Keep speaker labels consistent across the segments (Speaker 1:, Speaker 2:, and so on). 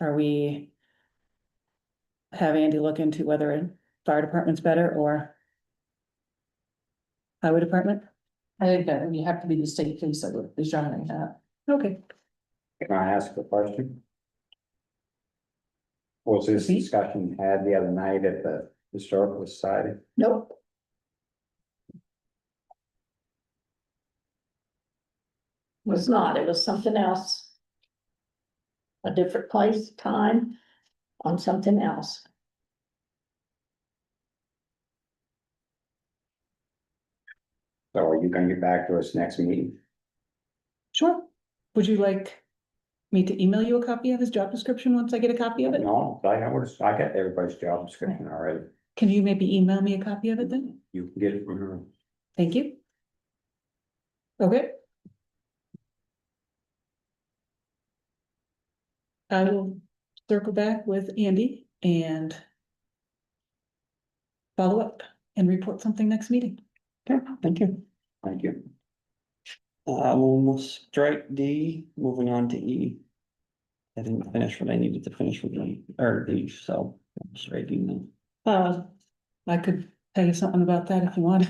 Speaker 1: Are we? Have Andy look into whether a fire department's better or? Highway department?
Speaker 2: I think that you have to be the state police that would be running that.
Speaker 1: Okay.
Speaker 3: Can I ask a question? Was this
Speaker 1: Please.
Speaker 3: discussion had the other night at the historical society?
Speaker 1: Nope.
Speaker 4: Was not, it was something else. A different place, time, on something else.
Speaker 3: So are you gonna get back to us next meeting?
Speaker 1: Sure. Would you like me to email you a copy of his job description once I get a copy of it?
Speaker 3: No, I noticed, I got everybody's job description already.
Speaker 1: Can you maybe email me a copy of it then?
Speaker 3: You can get it from her.
Speaker 1: Thank you. Okay. I will circle back with Andy and follow up and report something next meeting.
Speaker 5: Okay, thank you.
Speaker 3: Thank you.
Speaker 5: Uh, we'll mo- strike D, moving on to E. I didn't finish what I needed to finish with E, or D, so I'm striking them.
Speaker 1: Uh, I could tell you something about that if you want.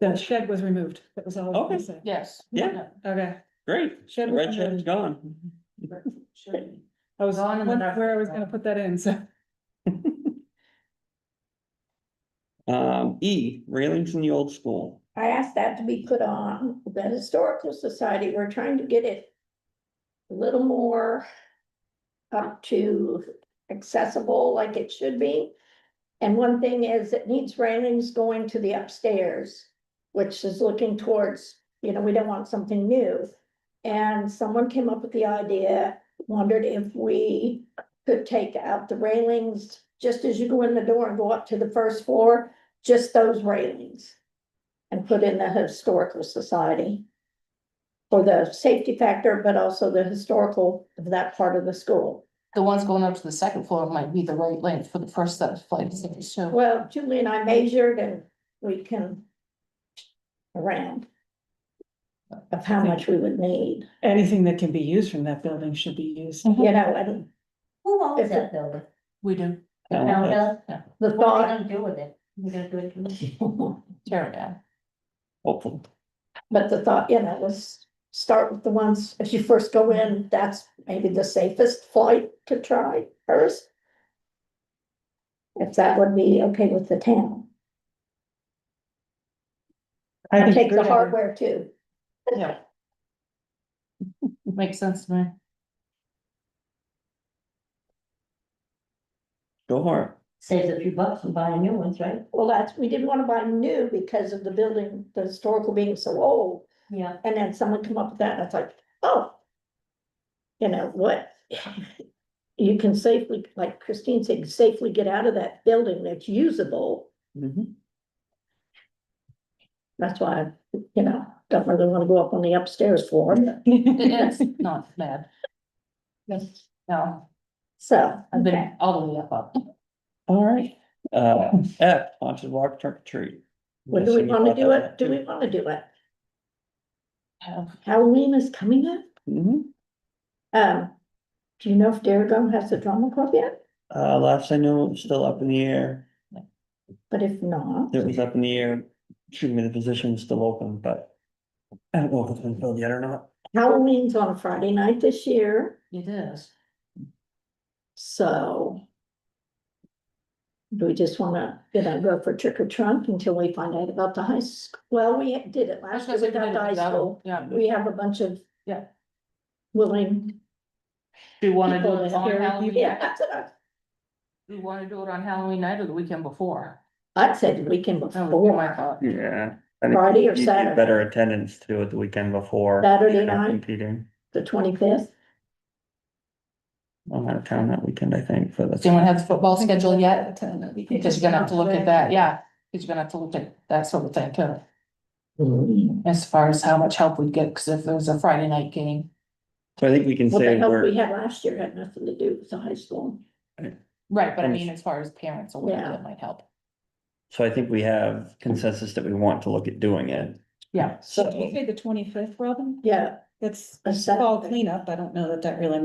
Speaker 1: The shed was removed. That was all. I
Speaker 5: Okay.
Speaker 1: said.
Speaker 2: Yes.
Speaker 5: Yeah.
Speaker 1: Okay.
Speaker 5: Great,
Speaker 1: Shed was
Speaker 5: red shed's
Speaker 1: removed.
Speaker 5: gone.
Speaker 1: I was
Speaker 2: Gone in the
Speaker 1: wondering where I was gonna put that in, so.
Speaker 5: Um, E, railings in the old school.
Speaker 4: I asked that to be put on, the historical society, we're trying to get it. A little more. Up to accessible like it should be. And one thing is it needs railings going to the upstairs. Which is looking towards, you know, we don't want something new. And someone came up with the idea, wondered if we could take out the railings. Just as you go in the door and go up to the first floor, just those railings and put in the historical society. For the safety factor, but also the historical of that part of the school.
Speaker 2: The ones going up to the second floor might be the right length for the first set of flights, so.
Speaker 4: Well, Julie and I measured and we can. Around. Of how much we would need,
Speaker 1: Anything that can be used from that building should be used.
Speaker 4: you know, and
Speaker 6: Who
Speaker 4: If
Speaker 6: owns
Speaker 4: it-
Speaker 6: that building?
Speaker 2: We do,
Speaker 5: Uh,
Speaker 6: Town does?
Speaker 2: yeah.
Speaker 4: the
Speaker 6: What are
Speaker 4: thought,
Speaker 6: they gonna do with it? We're gonna do it. to-
Speaker 2: tear it down.
Speaker 5: Hopefully,
Speaker 4: but the thought, you know, was. Start with the ones, if you first go in, that's maybe the safest flight to try first. If that would be okay with the town,
Speaker 1: I
Speaker 4: take the hardware too.
Speaker 2: Yeah. Makes sense to me.
Speaker 5: go for it.
Speaker 6: Saves a few bucks and buying new ones, right?
Speaker 4: Well, that's, we didn't wanna buy new because of the building, the historical being so old,
Speaker 6: Yeah.
Speaker 4: and then someone come up with that, and it's like, oh. You know, what? You can safely, like Christine said, safely get out of that building that's usable, Mm-hmm.
Speaker 5: Mhm.
Speaker 4: that's why, you know, don't really wanna go up on the upstairs floor. but-
Speaker 2: It is not bad, no,
Speaker 4: So,
Speaker 2: I've been all the way up up.
Speaker 5: All right, uh, F, haunted walk trick or treat.
Speaker 4: when do we
Speaker 5: Yes,
Speaker 4: wanna
Speaker 5: thought
Speaker 4: do
Speaker 5: that
Speaker 4: it, do we wanna do it?
Speaker 2: Yeah.
Speaker 4: Halloween is coming up,
Speaker 5: Mhm.
Speaker 4: um, do you know if Darragum has a drama club yet?
Speaker 5: Uh, last I know, it was still up in the air.
Speaker 4: But if not,
Speaker 5: It was up in the air, excuse me, the position's still open, but I don't know if it's been filled yet or not.
Speaker 4: Halloween's on a Friday night this year.
Speaker 2: It is,
Speaker 4: So. Do we just wanna, you know, go for trick or trunk until we find out about the high school? Well, we did it
Speaker 2: I
Speaker 4: last
Speaker 2: was gonna
Speaker 4: year
Speaker 2: say we did
Speaker 4: without the high
Speaker 2: it that
Speaker 4: school.
Speaker 2: way, yeah.
Speaker 4: We have a bunch of.
Speaker 2: Yeah.
Speaker 4: Willing.
Speaker 2: do you wanna do
Speaker 4: people
Speaker 2: it
Speaker 4: that-
Speaker 2: on Halloween?
Speaker 4: Yeah,
Speaker 2: night?
Speaker 4: that's what I,
Speaker 2: Do you wanna do it on Halloween night or the weekend before?
Speaker 4: I'd say the weekend
Speaker 2: That would be
Speaker 4: before,
Speaker 2: my thought.
Speaker 5: Yeah.
Speaker 4: Friday or
Speaker 5: You'd get
Speaker 4: Saturday.
Speaker 5: Better attendance to it the weekend before.
Speaker 4: Saturday
Speaker 5: You're not
Speaker 4: night,
Speaker 5: Competing.
Speaker 4: the twenty-fifth.
Speaker 5: I'm out of town that weekend, I think, for
Speaker 2: Does anyone
Speaker 5: the.
Speaker 2: have the football schedule yet? Because you're gonna have to look at that, yeah, because you're gonna have to look at that sort of thing too. As far as how much help we get, because if there was a Friday night game,
Speaker 5: So I think we can
Speaker 4: What
Speaker 5: say
Speaker 4: the help we
Speaker 5: we're,
Speaker 4: had last year had nothing to do with the high school.
Speaker 2: right, but I
Speaker 5: And-
Speaker 2: mean, as far as parents or whatever,
Speaker 4: Yeah.
Speaker 2: that might help.
Speaker 5: so I think we have consensus that we want to look at doing it.
Speaker 2: Yeah.
Speaker 1: So you say the twenty-fifth, Robin?
Speaker 4: Yeah,
Speaker 1: It's
Speaker 4: A set-
Speaker 1: fall cleanup. I don't know that that really